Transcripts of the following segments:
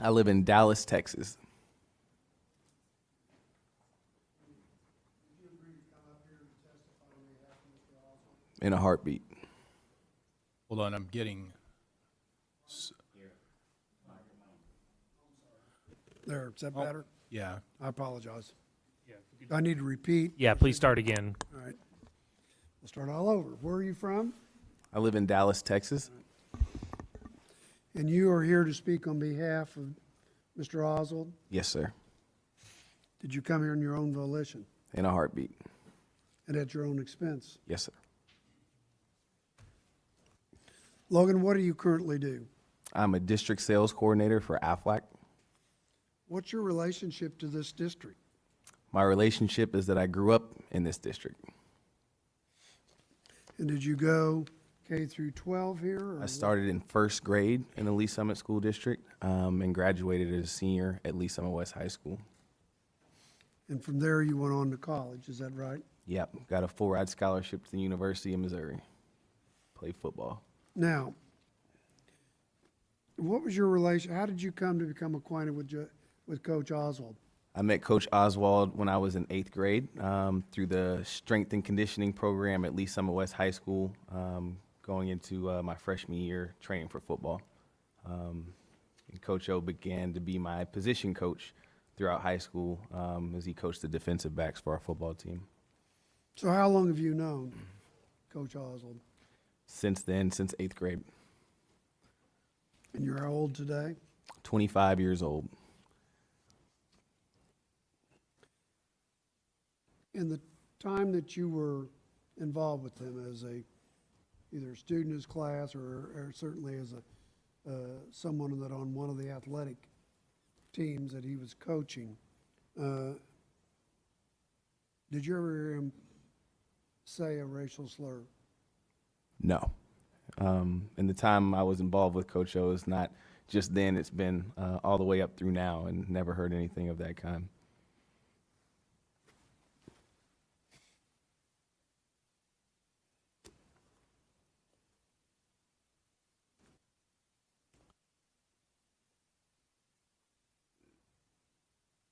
I live in Dallas, Texas. In a heartbeat. Hold on, I'm getting, There, is that better? yeah. I apologize. I need to repeat. Yeah, please start again. All right. We'll start all over. Where are you from? I live in Dallas, Texas. And you are here to speak on behalf of Mr. Oswald. Yes, sir. Did you come here on your own volition In a heartbeat. and at your own expense? Yes, sir. Logan, what do you currently do? I'm a district sales coordinator for AFLAC. What's your relationship to this district? My relationship is that I grew up in this district. And did you go K through 12 here? or I started in first grade in the Lee Summit School District um, and graduated as a senior at Lee Summit West High School. And from there, you went on to college, is that right? Yep, got a full ride scholarship to the University of Missouri. Play football. Now, what was your relation, how did you come to become acquainted with, Ju- with Coach Oswald? I met Coach Oswald when I was in eighth grade um, through the strength and conditioning program at Lee Summit West High School, um, going into uh, my freshman year training for football. Um, and Coach O began to be my position coach throughout high school um, as he coached the defensive backs for our football team. So how long have you known Coach Oswald? Since then, since eighth grade, And you're how old today? 25 years old. In the time that you were involved with him as a, either a student in his class or, or certainly as a, uh, someone that on one of the athletic teams that he was coaching, uh, did you ever hear him say a racial slur? No. Um, and the time I was involved with Coach O is not just then, it's been uh, all the way up through now and never heard anything of that kind.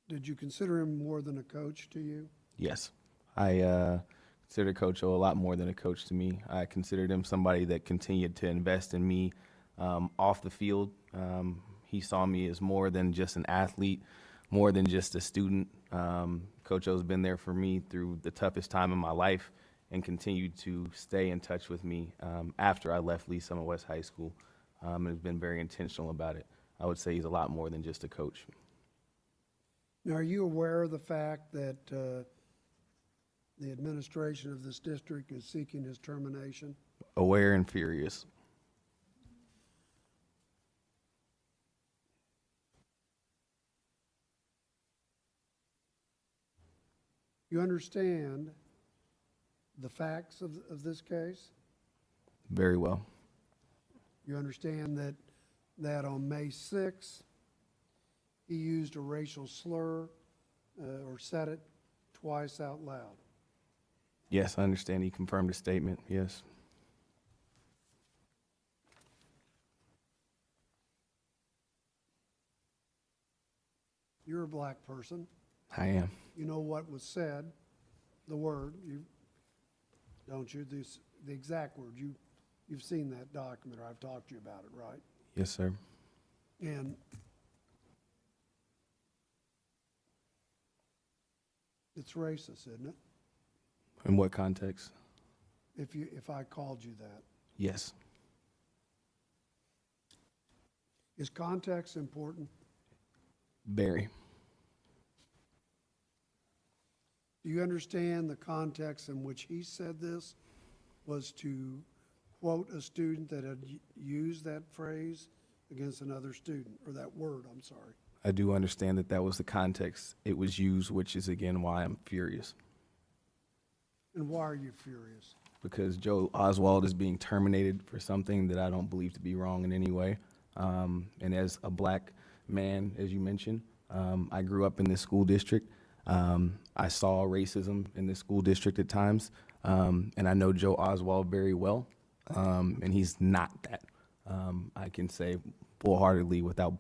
Did you consider him more than a coach to you? Yes. I uh, consider Coach O a lot more than a coach to me. I considered him somebody that continued to invest in me um, off the field. Um, he saw me as more than just an athlete, more than just a student. Um, coach O's been there for me through the toughest time in my life and continued to stay in touch with me um, after I left Lee Summit West High School um, and has been very intentional about it. I would say he's a lot more than just a coach. Now, are you aware of the fact that uh, the administration of this district is seeking his termination? Aware and furious. You understand the facts of, of this case? Very well. You understand that, that on May 6th, he used a racial slur uh, or said it twice out loud? Yes, I understand. He confirmed his statement. Yes. You're a black person. I am. you know what was said, the word, you, don't you, this, the exact word, you, you've seen that document, or I've talked to you about it, right? Yes, sir. And it's racist, isn't it? In what context? If you, if I called you that. Yes. Is context important? Very. Do you understand the context in which he said this was to quote a student that had y- used that phrase against another student, or that word, I'm sorry? I do understand that that was the context it was used, which is again why I'm furious And why are you furious? because Joe Oswald is being terminated for something that I don't believe to be wrong in any way. Um, and as a black man, as you mentioned, um, I grew up in this school district. Um, I saw racism in this school district at times, um, and I know Joe Oswald very well, um, and he's not that. Um, I can say full heartedly without